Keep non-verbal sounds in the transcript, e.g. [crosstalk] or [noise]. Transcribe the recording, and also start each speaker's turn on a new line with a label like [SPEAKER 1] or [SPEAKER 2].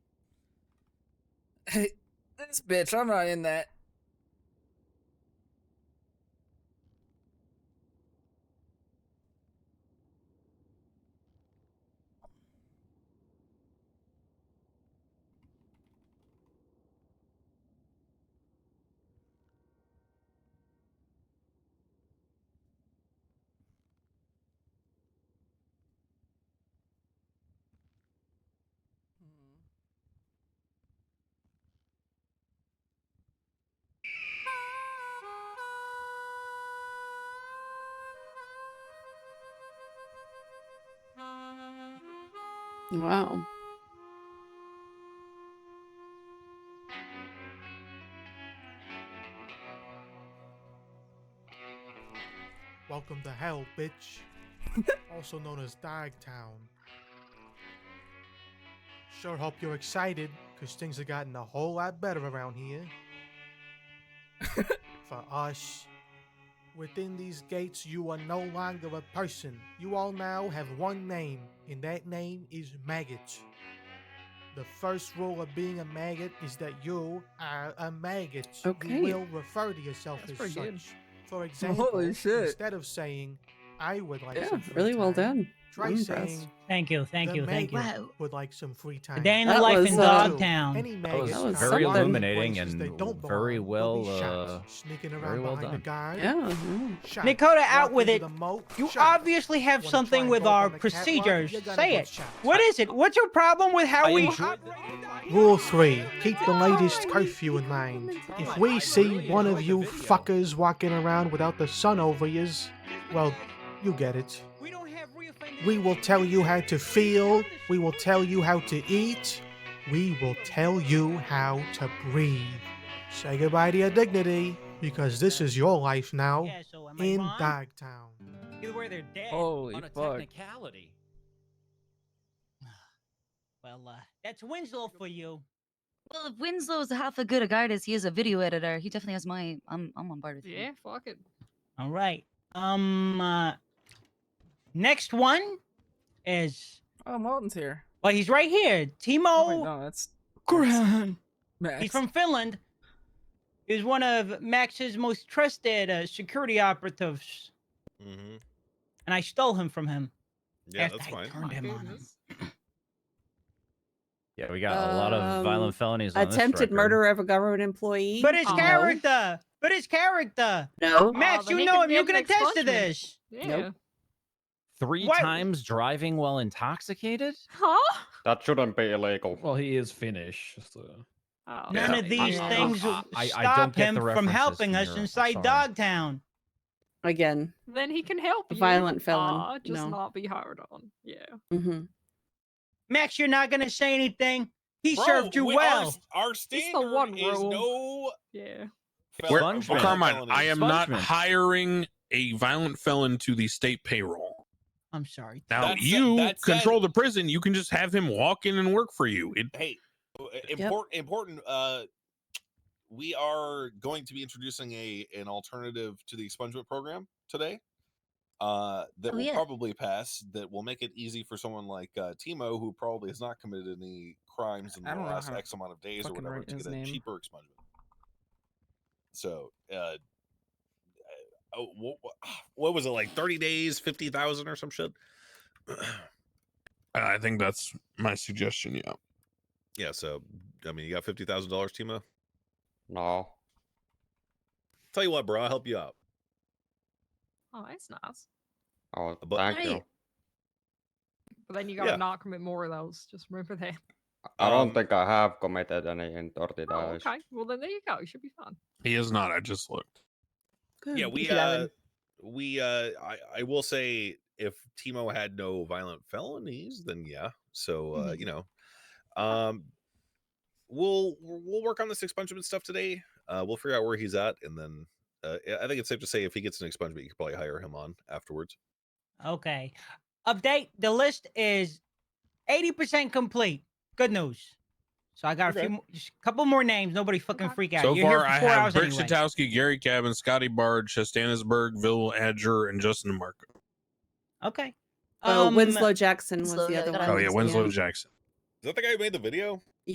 [SPEAKER 1] Hey, this bitch, I'm not in that.
[SPEAKER 2] Wow.
[SPEAKER 3] Welcome to hell, bitch. also known as Dogtown. Sure hope you're excited, because things have gotten a whole lot better around
[SPEAKER 4] [laughs]
[SPEAKER 3] here. For us. Within these gates, you are no longer a person. You all now have one name, and that name is Maggot. The first rule of being a maggot is that you are a maggot.
[SPEAKER 2] Okay.
[SPEAKER 3] You will refer to yourself
[SPEAKER 4] That's
[SPEAKER 3] as
[SPEAKER 4] pretty
[SPEAKER 3] such.
[SPEAKER 4] good. [laughs]
[SPEAKER 3] For example,
[SPEAKER 1] shit.
[SPEAKER 3] instead of saying, I would like
[SPEAKER 2] Yeah,
[SPEAKER 3] some free
[SPEAKER 2] really well
[SPEAKER 3] time,"
[SPEAKER 2] done.
[SPEAKER 3] Try
[SPEAKER 2] I'm
[SPEAKER 3] saying,
[SPEAKER 2] impressed.
[SPEAKER 5] Thank you, thank
[SPEAKER 3] "The
[SPEAKER 5] you, thank you.
[SPEAKER 3] maggot Would like some free time.
[SPEAKER 5] day in
[SPEAKER 2] the That life in was, uh,
[SPEAKER 5] Dogtown.
[SPEAKER 3] Any
[SPEAKER 4] That
[SPEAKER 3] maggot
[SPEAKER 4] was
[SPEAKER 2] That was
[SPEAKER 3] found
[SPEAKER 2] very
[SPEAKER 3] in places
[SPEAKER 4] illuminating
[SPEAKER 3] they
[SPEAKER 4] and
[SPEAKER 3] don't
[SPEAKER 4] very
[SPEAKER 3] belong will be
[SPEAKER 4] well,
[SPEAKER 3] shot,
[SPEAKER 4] uh,
[SPEAKER 3] sneaking around
[SPEAKER 4] very well
[SPEAKER 3] behind
[SPEAKER 4] done.
[SPEAKER 3] The guard,
[SPEAKER 2] Yeah. yeah.
[SPEAKER 3] shot,
[SPEAKER 5] Dakota, out
[SPEAKER 3] walking
[SPEAKER 5] with
[SPEAKER 3] through
[SPEAKER 5] it.
[SPEAKER 3] the moat,
[SPEAKER 5] You
[SPEAKER 3] shot.
[SPEAKER 5] obviously have
[SPEAKER 3] Wanna try
[SPEAKER 5] something
[SPEAKER 3] and
[SPEAKER 5] with
[SPEAKER 3] go up
[SPEAKER 5] our
[SPEAKER 3] on the catwalk?
[SPEAKER 5] procedures.
[SPEAKER 3] You're gonna
[SPEAKER 5] Say
[SPEAKER 3] get
[SPEAKER 5] it.
[SPEAKER 3] shot.
[SPEAKER 5] What is it? What's your problem with how
[SPEAKER 4] I
[SPEAKER 5] we?
[SPEAKER 4] enjoyed
[SPEAKER 3] Rule three: keep the latest curfew in mind. If we see one of you fuckers walking around without the sun over yous, well, you get it.
[SPEAKER 5] We don't have reoffended-
[SPEAKER 3] We will tell you how to feel. We will tell you how to eat. We will tell you how to breathe. Say goodbye to your dignity, because this is your life now
[SPEAKER 5] Yeah, so am I
[SPEAKER 3] in
[SPEAKER 5] wrong?
[SPEAKER 3] Dogtown.
[SPEAKER 5] Either way, they're dead.
[SPEAKER 1] Holy
[SPEAKER 4] on a
[SPEAKER 1] fuck.
[SPEAKER 4] technicality.
[SPEAKER 5] [sighs] Well, uh, that's Winslow for you.
[SPEAKER 6] Well, if Winslow's half a good a guy as he is a video editor, he definitely has my. I'm I'm on board with you.
[SPEAKER 7] Yeah, fuck it.
[SPEAKER 5] All right. Um. Uh, next one is
[SPEAKER 1] Oh, Malton's here.
[SPEAKER 5] well, he's right here.
[SPEAKER 1] Oh, wait,
[SPEAKER 5] Timo.
[SPEAKER 1] no, that's
[SPEAKER 2] Gran.
[SPEAKER 1] Max.
[SPEAKER 5] he's from Finland. He's one of Max's most trusted uh, security operatives,
[SPEAKER 8] Mm-hmm.
[SPEAKER 5] and I stole him from him.
[SPEAKER 8] Yeah,
[SPEAKER 5] after
[SPEAKER 8] that's
[SPEAKER 5] I
[SPEAKER 8] fine.
[SPEAKER 5] Turned him on him.
[SPEAKER 7] Goodness.
[SPEAKER 4] Yeah, we got a lot of
[SPEAKER 2] Um,
[SPEAKER 4] violent felonies.
[SPEAKER 9] Oh,
[SPEAKER 4] On
[SPEAKER 2] Attempted
[SPEAKER 4] this record.
[SPEAKER 2] murder of a government employee.
[SPEAKER 5] But his
[SPEAKER 7] Oh.
[SPEAKER 5] character. But his character.
[SPEAKER 4] Oh,
[SPEAKER 2] No.
[SPEAKER 5] Max,
[SPEAKER 7] then
[SPEAKER 5] you
[SPEAKER 7] he
[SPEAKER 5] know
[SPEAKER 7] could
[SPEAKER 5] him.
[SPEAKER 7] be
[SPEAKER 5] You
[SPEAKER 7] up
[SPEAKER 5] can
[SPEAKER 7] next
[SPEAKER 5] attest to
[SPEAKER 7] watchman.
[SPEAKER 5] this.
[SPEAKER 7] Yeah.
[SPEAKER 4] Three
[SPEAKER 5] What-
[SPEAKER 4] times driving while intoxicated.
[SPEAKER 7] Huh?
[SPEAKER 10] That shouldn't be illegal.
[SPEAKER 11] Well, he is Finnish. So.
[SPEAKER 7] Oh,
[SPEAKER 5] None
[SPEAKER 4] Yeah,
[SPEAKER 5] of
[SPEAKER 4] I-
[SPEAKER 5] these
[SPEAKER 4] I-
[SPEAKER 5] things
[SPEAKER 4] I- I
[SPEAKER 5] stop
[SPEAKER 4] don't get
[SPEAKER 5] him
[SPEAKER 4] the
[SPEAKER 5] from
[SPEAKER 4] references
[SPEAKER 5] helping
[SPEAKER 4] from
[SPEAKER 5] us
[SPEAKER 4] Europe, I'm
[SPEAKER 5] inside
[SPEAKER 4] sorry.
[SPEAKER 5] Dogtown.
[SPEAKER 2] Again.
[SPEAKER 7] Then he can help
[SPEAKER 2] A
[SPEAKER 7] you.
[SPEAKER 2] violent felon.
[SPEAKER 7] Ah, just
[SPEAKER 2] No.
[SPEAKER 7] not be hard on. Yeah.
[SPEAKER 2] hmm
[SPEAKER 5] Max, you're not gonna say anything. He
[SPEAKER 8] Bro,
[SPEAKER 5] served you
[SPEAKER 8] we- our
[SPEAKER 5] well.
[SPEAKER 8] s- Our standard
[SPEAKER 7] one
[SPEAKER 8] is
[SPEAKER 7] rule.
[SPEAKER 8] no.
[SPEAKER 7] Yeah.
[SPEAKER 8] fel-
[SPEAKER 4] Where-
[SPEAKER 8] violent
[SPEAKER 4] Spongement.
[SPEAKER 9] Carmine, I am not
[SPEAKER 4] Spongement.
[SPEAKER 9] hiring a violent felon to the state payroll.
[SPEAKER 5] I'm sorry.
[SPEAKER 9] Now
[SPEAKER 8] That said-
[SPEAKER 9] you
[SPEAKER 8] that said-
[SPEAKER 9] control the prison. You can just have him walk in and work for you. It,
[SPEAKER 8] Hey, important. Important. Uh, we are going to be introducing a an alternative to the expungement program today. Uh, that
[SPEAKER 6] Oh,
[SPEAKER 8] will
[SPEAKER 6] yeah.
[SPEAKER 8] probably pass. That will make it easy for someone like uh, Timo, who probably has not committed any crimes in
[SPEAKER 1] I
[SPEAKER 8] the
[SPEAKER 1] don't know
[SPEAKER 8] last
[SPEAKER 1] how to
[SPEAKER 8] X amount of days or
[SPEAKER 1] fucking
[SPEAKER 8] whatever,
[SPEAKER 1] write
[SPEAKER 8] to
[SPEAKER 1] his
[SPEAKER 8] get a
[SPEAKER 1] name.
[SPEAKER 8] cheaper expungement. So, uh, oh, what, [sighs] what was it like? Thirty days, fifty thousand, or some shit.
[SPEAKER 9] I think that's my suggestion. Yeah.
[SPEAKER 8] yeah. So, I mean, you got fifty thousand dollars, Timo.
[SPEAKER 10] No.
[SPEAKER 8] Tell you what, bro, I'll help you out.
[SPEAKER 7] Oh, that's nice.
[SPEAKER 10] Oh,
[SPEAKER 8] But-
[SPEAKER 10] thank you.
[SPEAKER 6] Right.
[SPEAKER 7] But then you gotta
[SPEAKER 8] Yeah.
[SPEAKER 7] not commit more of those. Just remember that.
[SPEAKER 10] I don't
[SPEAKER 8] Um,
[SPEAKER 10] think I have committed any in 30
[SPEAKER 7] Oh,
[SPEAKER 10] days.
[SPEAKER 7] okay. Well, then there you go. You should be fine.
[SPEAKER 9] He is not. I just looked.
[SPEAKER 2] Good.
[SPEAKER 8] yeah we
[SPEAKER 2] Good job,
[SPEAKER 8] uh
[SPEAKER 2] Evan.
[SPEAKER 8] we uh I, I will say if timo had no violent felonies then yeah so uh you know um we'll we'll work on this expungement stuff today uh we'll figure out where he's at and then uh, yeah, i think it's safe to say if he gets an expungement you could probably hire him on afterwards
[SPEAKER 5] Okay. Update. The list is 80% complete. Good news. So I got a
[SPEAKER 8] Okay.
[SPEAKER 5] few, mo- just a couple more names. Nobody fucking
[SPEAKER 7] Okay.
[SPEAKER 5] freak out.
[SPEAKER 9] so
[SPEAKER 5] You're
[SPEAKER 9] far,
[SPEAKER 5] here for
[SPEAKER 9] I
[SPEAKER 5] four
[SPEAKER 9] have
[SPEAKER 5] hours
[SPEAKER 9] Brick
[SPEAKER 5] anyway.
[SPEAKER 9] Shatowski, Gary Cabin, Scotty Bard, Chastanisberg, Vil Adger, and Justin DeMarco.
[SPEAKER 5] Okay.
[SPEAKER 2] Oh,
[SPEAKER 5] Um,
[SPEAKER 2] Winslow Jackson was
[SPEAKER 6] Winslow,
[SPEAKER 2] the
[SPEAKER 6] yeah,
[SPEAKER 2] other
[SPEAKER 6] that
[SPEAKER 2] one.
[SPEAKER 6] I
[SPEAKER 9] Oh yeah,
[SPEAKER 6] was-
[SPEAKER 9] Winslow Jackson.
[SPEAKER 8] is that the guy who made the video